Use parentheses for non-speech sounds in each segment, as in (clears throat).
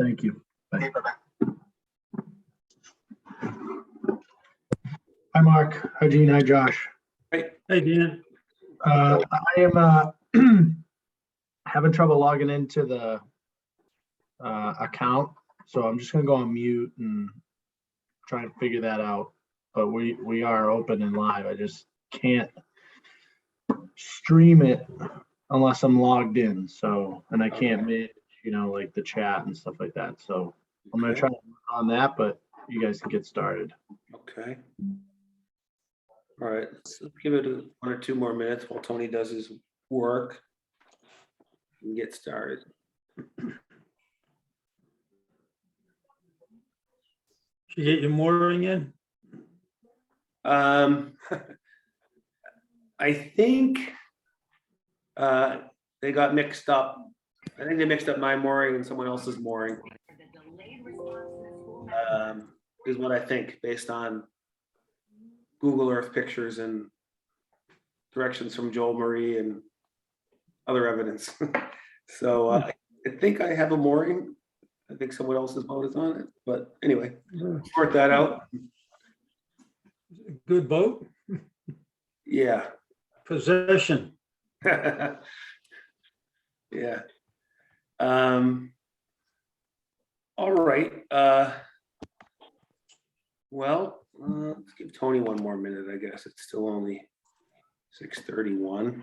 Thank you. Okay, bye-bye. Hi, Mark. Hi, Gene. Hi, Josh. Hey, Dina. Uh, I am, uh, (clears throat) having trouble logging into the, uh, account, so I'm just gonna go on mute and try and figure that out. But we, we are open and live. I just can't stream it unless I'm logged in, so, and I can't make, you know, like the chat and stuff like that, so I'm gonna try on that, but you guys can get started. Okay. All right, let's give it a- one or two more minutes while Tony does his work. And get started. Did you get your mooring in? Um, I think uh, they got mixed up. I think they mixed up my mooring and someone else's mooring. um, Is what I think, based on Google Earth pictures and directions from Joel Marie and other evidence. (laughs) So uh, I think I have a mooring. I think someone else's boat is on it, but anyway, sort that out. Good boat, Yeah. possession. (laughs) Yeah. Um. All right, uh. Well, uh, let's give Tony one more minute, I guess. It's still only six thirty-one.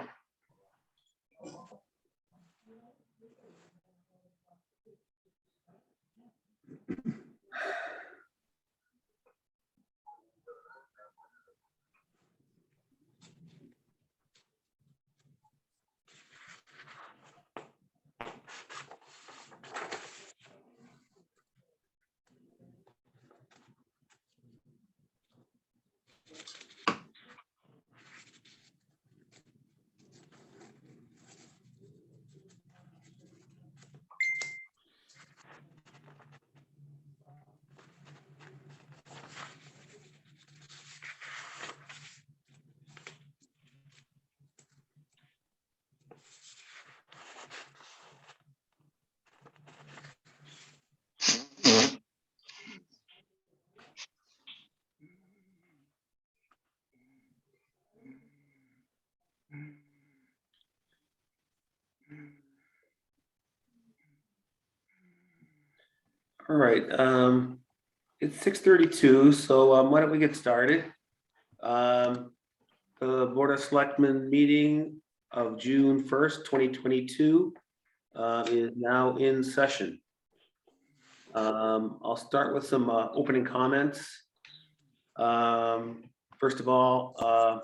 All right, um, it's six thirty-two, so um, why don't we get started? Um, the Board of Selectmen meeting of June first, twenty twenty-two uh, is now in session. Um, I'll start with some uh, opening comments. Um, first of all, uh,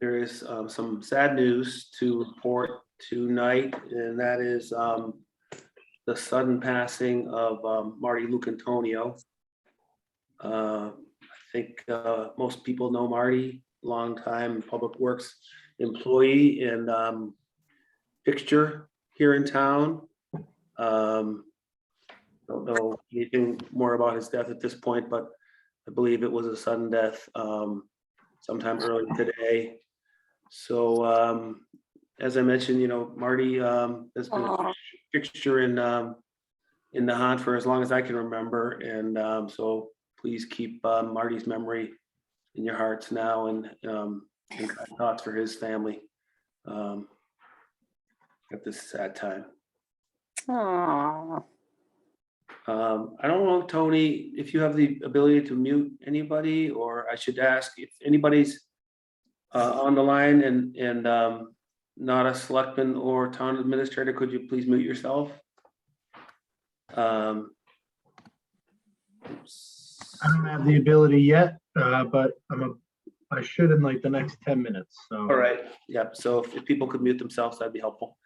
there is um, some sad news to report tonight, and that is um, the sudden passing of um, Marty Lucantonio. Uh, I think uh, most people know Marty, longtime Public Works employee and um, fixture here in town. Um, Don't know anything more about his death at this point, but I believe it was a sudden death um, sometime early today. So um, as I mentioned, you know, Marty um, has been a Oh. fixture in, um, in the hunt for as long as I can remember. And, um, so please keep uh, Marty's memory in your hearts now and, um, and kind thoughts for his family. Um, at this sad time. Aw. Um, I don't know, Tony, if you have the ability to mute anybody, or I should ask if anybody's uh, on the line and, and, um, not a selectman or town administrator, could you please mute yourself? Um, I don't have the ability yet, uh, but I'm a, I should in like the next ten minutes, so. All right, yep, Um, so if- if people could mute themselves, that'd be helpful.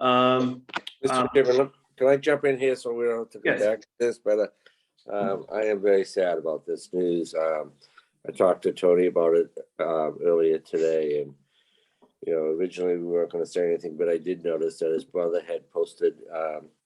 Um, Um, Mr. Chairman, look, can I jump in here so we don't have to go Yes. back to this, but uh, um, I am very sad about this news. Um, I talked to Tony about it um, earlier today and, you know, originally we weren't going to say anything, but I did notice that his brother had posted um,